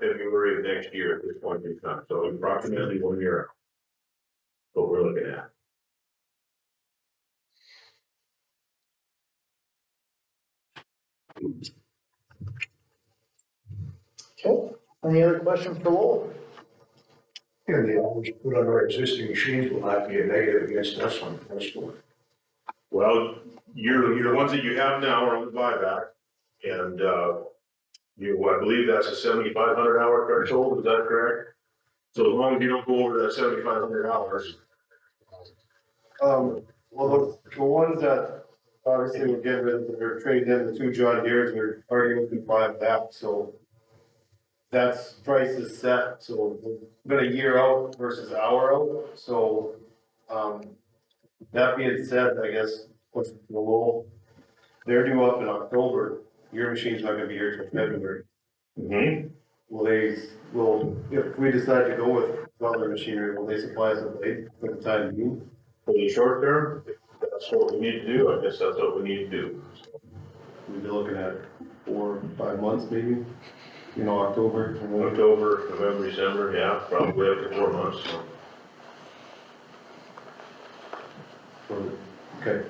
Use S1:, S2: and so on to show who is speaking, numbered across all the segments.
S1: February of next year at this point in time, so approximately one year. out. What we're looking at.
S2: Okay, any other questions for Lowell?
S3: And the hours put on our existing machines will not be a negative against us on the first one.
S1: Well, your, your ones that you have now are on the buyback, and, uh, you, I believe that's a seventy-five hundred hour threshold, is that correct? So as long as you don't go over that seventy-five hundred hours,
S4: Um, well, the, the ones that obviously were given, or traded in, the two John Deere's, were already within five that, so. That's price is set, so we've been a year out versus hour out, so, um, that being said, I guess, what's the low? They're due up in October, your machine's not gonna be here till February. Will they, will, if we decide to go with other machinery, will they supply us a blade for the time being?
S1: for the short term, that's what we need to do, I guess that's what we need to do.
S4: We'd be looking at four, five months maybe, you know, October. and then-
S1: October, November, December, yeah, probably up to four months, so.
S4: or- Okay.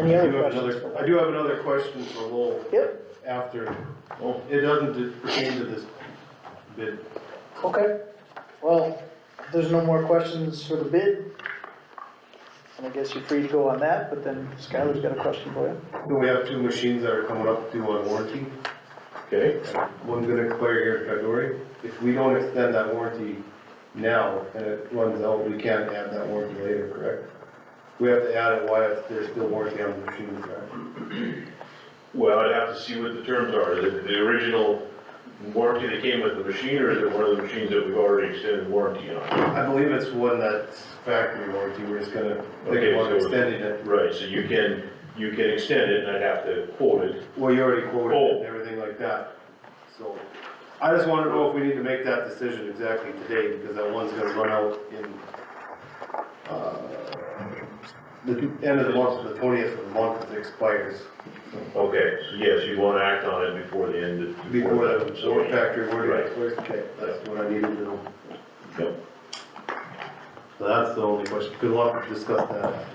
S2: Any
S4: I
S2: other
S4: do have
S2: questions?
S4: another, I do have another question for Lowell
S2: Yep,
S4: after, well, it doesn't pertain to this bid.
S2: okay. Well, if there's no more questions for the bid. And I guess you're free to go on that, but then Skylar's got a question for you.
S4: Do we have two machines that are coming up due on warranty?
S1: Okay,
S4: One's gonna expire here in February. If we don't extend that warranty now and it runs out, we can't add that warranty later, correct? We have to add it while it's- there's still warranty on the machines, correct?
S1: well, I'd have to see what the terms are, the, the original warranty that came with the machine, or is it one of the machines that we've already extended warranty on?
S4: I believe it's one that's factory warranty, we're just gonna,
S1: Okay,
S4: they want
S1: so-
S4: extending it.
S1: Right, so you can, you can extend it, and I'd have to quote it,
S4: Well, you already quoted it
S1: Oh.
S4: and everything like that, so. I just wanna know if we need to make that decision exactly today, because that one's gonna run out in, uh, the end of the month, the twentieth of the month, it expires.
S1: okay, so yes, you wanna act on it before the end of.
S4: Before that, so
S1: so-
S4: we're factory
S1: Right.
S4: warranty expires, okay, that's what I needed to know.
S1: Yep.
S4: So that's the only question, good luck, discuss that after.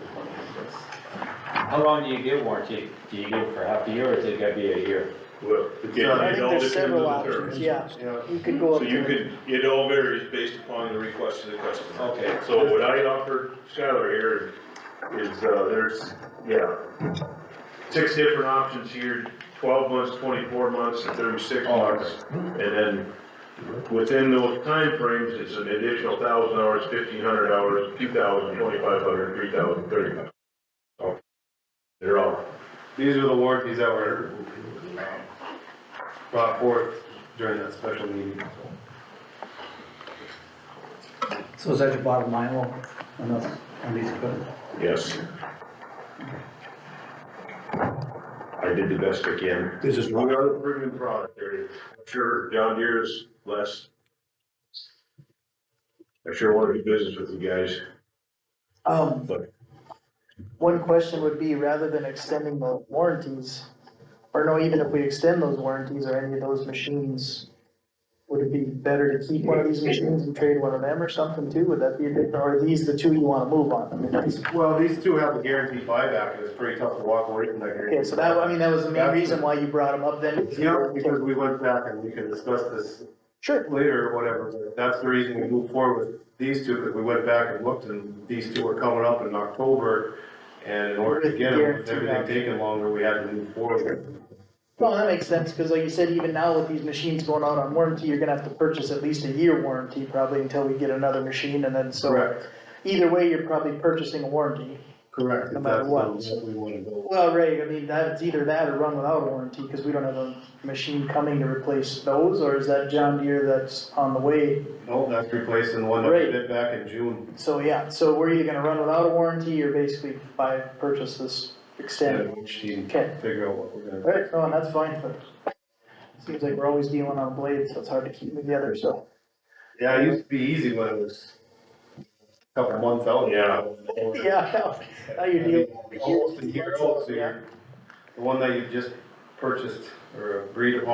S5: How long do you give warranty? Do you give for half a year or is it gotta be a year?
S1: Well, again,
S4: I
S2: I
S1: it
S2: think
S1: all depends
S2: there's
S1: on
S2: several
S1: the
S2: options,
S1: terms.
S2: yeah.
S4: Yeah,
S2: You could go up
S1: So you
S2: to,
S1: could, it all varies based upon the request of the customer.
S5: Okay.
S1: So what I offered Skylar here is, uh, there's, yeah, six different options here, twelve months, twenty-four months, and thirty-six months. And then within those timeframes, it's an additional thousand hours, fifteen hundred hours, two thousand, twenty-five hundred, three thousand, thirty. So They're all,
S4: These are the warranties that were brought forth during that special meeting.
S6: So is that your bottom line, Will, on those, on these equipment?
S1: yes. I did the best I can.
S3: This is
S1: We
S3: not,
S1: are the premium product area. I'm sure John Deere is less. I sure want to do business with you guys.
S2: um,
S1: But-
S2: one question would be, rather than extending the warranties, or no, even if we extend those warranties or any of those machines, would it be better to keep one of these machines and trade one of them or something too? Would that be, a good- or are these the two you wanna move on? I mean, that's,
S4: Well, these two have a guaranteed buyback, and it's pretty tough to walk away from that guarantee.
S2: okay, so that, I mean, that was the main reason why you brought them up then.
S4: Yeah, because we went back and we can discuss this
S2: Sure,
S4: later or whatever, but that's the reason we moved forward with these two, because we went back and looked, and these two are coming up in October, and in order to get them, with everything taking longer, we had to move forward.
S2: well, that makes sense, cause like you said, even now with these machines going out on warranty, you're gonna have to purchase at least a year warranty probably until we get another machine and then so.
S4: Correct,
S2: Either way, you're probably purchasing a warranty.
S4: correct.
S2: No matter
S4: That's
S2: what.
S4: the route We wanna go.
S2: Well, right, I mean, that's either that or run without warranty, cause we don't have a machine coming to replace those, or is that John Deere that's on the way?
S4: No, that's replacing the one that
S2: Right.
S4: we did back in June.
S2: So, yeah, so we're either gonna run without a warranty or basically buy, purchase this
S4: Yeah,
S2: extended.
S4: we just need to
S2: Okay,
S4: figure out what we're gonna,
S2: alright, no, and that's fine, but seems like we're always dealing on blades, so it's hard to keep them together, so.
S4: yeah, it used to be easy when it was a couple months out. Yeah.
S2: Yeah, now you're dealing.
S4: Almost a year old, so you're, the one that you just purchased or agreed upon